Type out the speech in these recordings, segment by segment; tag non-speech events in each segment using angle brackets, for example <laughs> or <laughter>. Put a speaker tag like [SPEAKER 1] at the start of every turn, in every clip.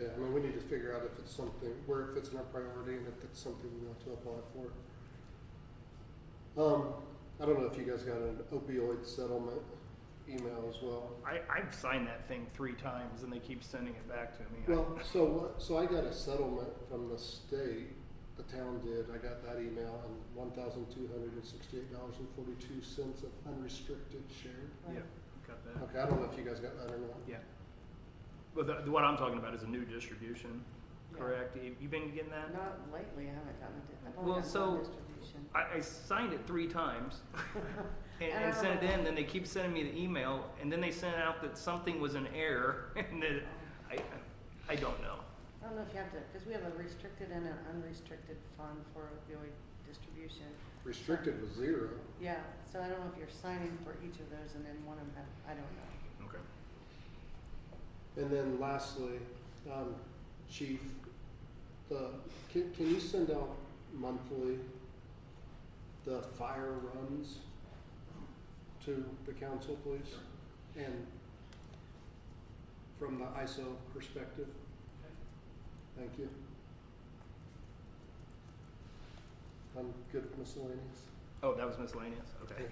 [SPEAKER 1] Yeah, I mean, we need to figure out if it's something, where it fits in our priority and if it's something we want to apply for. Um, I don't know if you guys got an opioid settlement email as well.
[SPEAKER 2] I, I've signed that thing three times and they keep sending it back to me. I-
[SPEAKER 1] Well, so what, so I got a settlement from the state, the town did, I got that email and one thousand two hundred and sixty-eight dollars and forty-two cents of unrestricted shared.
[SPEAKER 2] Yeah, got that.
[SPEAKER 1] Okay, I don't know if you guys got that or not.
[SPEAKER 2] Yeah. But the, what I'm talking about is a new distribution, correct? You you been getting that?
[SPEAKER 3] Not lately, I haven't done it, I've
[SPEAKER 2] Well,
[SPEAKER 3] only done
[SPEAKER 2] so-
[SPEAKER 3] one distribution.
[SPEAKER 2] I, I signed it
[SPEAKER 1] <laughs>
[SPEAKER 2] three times and,
[SPEAKER 3] And I
[SPEAKER 2] and
[SPEAKER 3] don't
[SPEAKER 2] sent it
[SPEAKER 3] know.
[SPEAKER 2] in, then they keep sending me the email, and then they sent out that something was an error, <laughs> and then, I, I don't know.
[SPEAKER 3] I don't know if you have to, because we have a restricted and an unrestricted fund for opioid distribution.
[SPEAKER 1] Restricted was zero.
[SPEAKER 3] Yeah, so I don't know if you're signing for each of those and then one of them, I don't know.
[SPEAKER 2] Okay.
[SPEAKER 1] And then lastly, um, chief, the, can, can you send out monthly the fire runs to the council, please? And from the ISO perspective? Thank you. I'm good with miscellaneous.
[SPEAKER 2] Oh, that was miscellaneous, okay.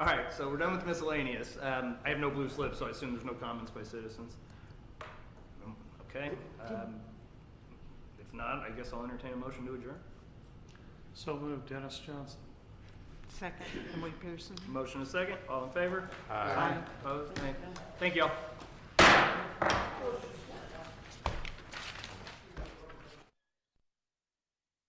[SPEAKER 2] All right, so we're done with miscellaneous. Um, I have no blue slips, so I assume there's no comments by citizens. Um, Okay, um, if not, I guess I'll entertain a motion to adjourn.
[SPEAKER 4] So moved, Dennis Johnson.
[SPEAKER 5] Second, Emily Pearson.
[SPEAKER 2] Motion a second, all in favor?
[SPEAKER 1] Aye.
[SPEAKER 2] Opposed? Nay. Thank y'all.